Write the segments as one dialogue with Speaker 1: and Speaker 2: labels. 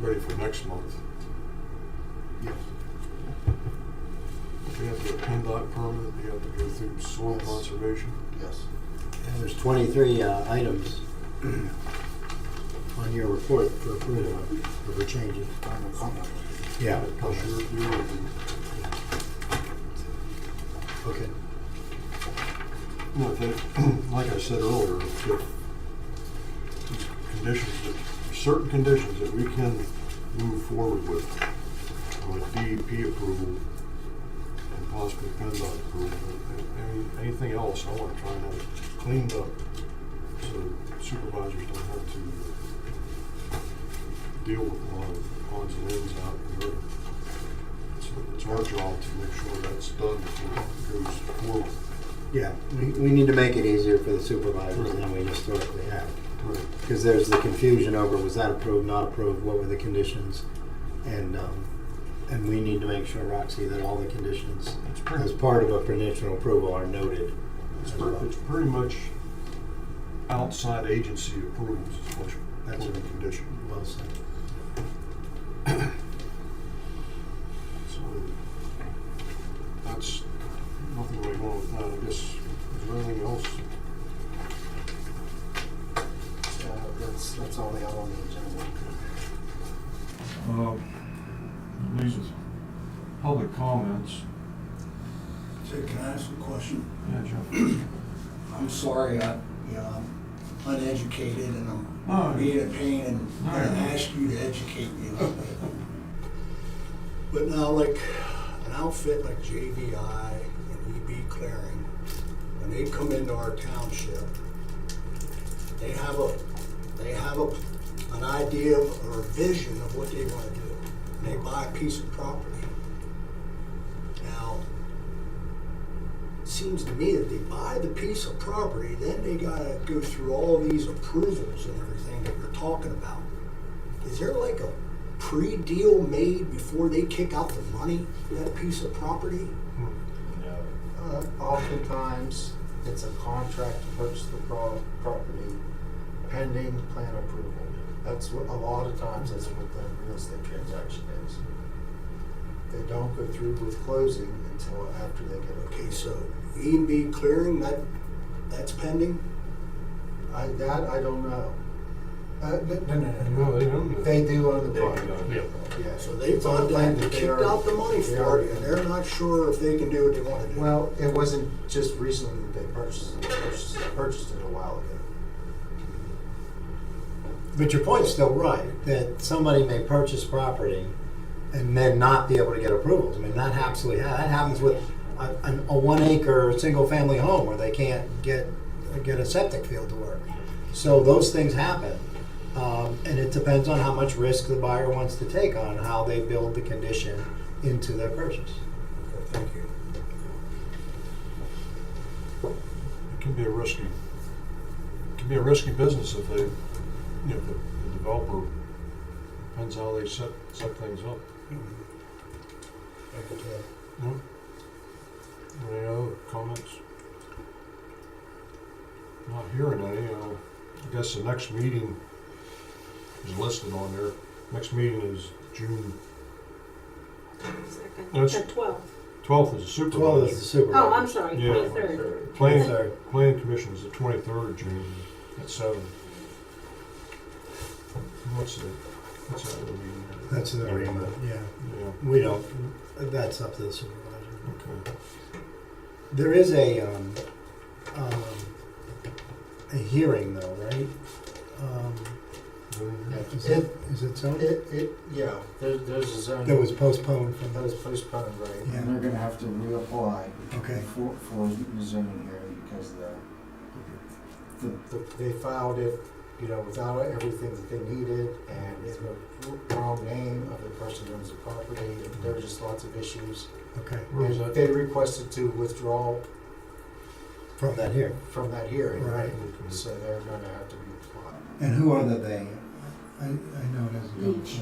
Speaker 1: ready for next month.
Speaker 2: Yes.
Speaker 1: We have to get a PennDOT permit, we have to go through soil
Speaker 2: Yes.
Speaker 1: conservation.
Speaker 2: Yes.
Speaker 3: And there's 23 uh, items on your report for approval of the changes.
Speaker 2: Final comment.
Speaker 3: Yeah.
Speaker 1: Plus your review and,
Speaker 3: Okay.
Speaker 1: look, that- like I said earlier, if these conditions, that- certain conditions that we can move forward with, with DEP approval and possibly PennDOT approval, and any- anything else, I want to try and have it cleaned up so supervisors don't have to deal with a lot of odds and ends out there. It's- It's our job to make sure that's done before it goes forward.
Speaker 3: Yeah, we, we need to make it easier for the supervisors than we historically have.
Speaker 1: Right.
Speaker 3: Because there's the confusion over was that approved, not approved, what were the conditions? And, um, and we need to make sure, Roxy, that all the conditions
Speaker 1: It's
Speaker 3: as
Speaker 1: pretty,
Speaker 3: part of a conditional approval are noted.
Speaker 1: it's pretty, it's pretty much outside agency approvals is what, that's a condition.
Speaker 3: Well said.
Speaker 1: So that's nothing really going with that, I guess. Is there anything else?
Speaker 2: Uh, That's, that's all they have on the agenda.
Speaker 4: Uh, These are public comments.
Speaker 5: Say, can I ask a question?
Speaker 4: Yeah, Jeff.
Speaker 5: I'm sorry, I, you know, I'm uneducated and
Speaker 4: No.
Speaker 5: I'm being a pain and
Speaker 4: No.
Speaker 5: I ask you to educate me a little bit. But now, like, an outfit like JVI and EB Clearing, when they come into our township, they have a, they have a, an idea or a vision of what they wanna do. And they buy a piece of property. Now, seems to me that they buy the piece of property, then they gotta go through all these approvals and everything that you're talking about. Is there like a pre-deal made before they kick out the money for that piece of property?
Speaker 6: Uh, Oftentimes, it's a contract to purchase the pro- property pending plan approval. That's what, a lot of times, that's what the real estate transaction is. They don't go through with closing until after they get a
Speaker 5: Okay, so E and B clearing, that, that's pending?
Speaker 6: I, that I don't know. Uh, no, no, no, no.
Speaker 1: No, they don't.
Speaker 6: They do own the property.
Speaker 4: Yeah.
Speaker 6: Yeah,
Speaker 5: So they
Speaker 6: it's on
Speaker 5: bought
Speaker 6: land
Speaker 5: that, they
Speaker 6: they
Speaker 5: kicked
Speaker 6: already-
Speaker 5: out the money
Speaker 6: they
Speaker 5: for
Speaker 6: already
Speaker 5: it, and
Speaker 6: own.
Speaker 5: they're not sure if they can do what they wanna do.
Speaker 6: Well, it wasn't just recently that they purchased it, they purchased it, purchased it a while ago.
Speaker 3: But your point's still right, that somebody may purchase property and then not be able to get approvals. I mean, that absolutely, ha- that happens with a, an- a one acre, single family home where they can't get, get a septic field to work. So those things happen. Um, and it depends on how much risk the buyer wants to take on how they build the condition into their purchase.
Speaker 5: Okay, Thank you.
Speaker 1: It can be a risky, it can be a risky business if they, you know, the the developer, depends how they set, set things up.
Speaker 5: Thank you, Ted.
Speaker 1: Hmm. Any other comments? Not hearing any, uh, I guess the next meeting is listed on there. Next meeting is June
Speaker 7: Second.
Speaker 1: That's-
Speaker 7: At twelve.
Speaker 1: twelfth is the
Speaker 3: Twelve is
Speaker 1: supervisor.
Speaker 3: the super.
Speaker 7: Oh, I'm sorry,
Speaker 1: Yeah.
Speaker 7: twenty-third.
Speaker 1: Planning,
Speaker 3: Third.
Speaker 1: planning commission is the twenty-third of June at seven. And What's the, what's that other meeting?
Speaker 3: That's the agreement, yeah.
Speaker 1: Yeah,
Speaker 3: We don't, that's up to the supervisor.
Speaker 1: okay.
Speaker 3: There is a, um, um, a hearing though, right? Um, is it, is it so?
Speaker 6: It, it, yeah, there, there's a zoning.
Speaker 3: That was postponed from
Speaker 6: That
Speaker 3: those,
Speaker 6: was postponed, right?
Speaker 3: Yeah.
Speaker 8: And they're gonna have to reapply
Speaker 3: okay.
Speaker 8: for, for zoning here because the,
Speaker 6: The, they filed it, you know, without everything that they needed and in the wrong name of the person who owns the property. and There were just lots of issues.
Speaker 3: Okay,
Speaker 1: Where was
Speaker 6: And
Speaker 1: that?
Speaker 6: They requested to withdraw
Speaker 3: from that here.
Speaker 6: from that hearing, right?
Speaker 1: Okay.
Speaker 6: So they're gonna have to reapply.
Speaker 3: And who are the they? I, I know it isn't.
Speaker 7: Leach.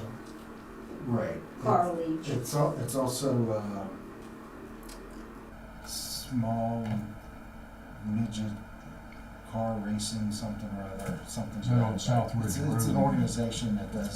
Speaker 8: right.
Speaker 7: Carl Leach.
Speaker 8: It's al- it's also, uh, small midget car racing, something or other, something.
Speaker 1: Is that on
Speaker 8: like that.
Speaker 1: Southridge
Speaker 8: It's, it's an
Speaker 1: Road?
Speaker 8: organization that does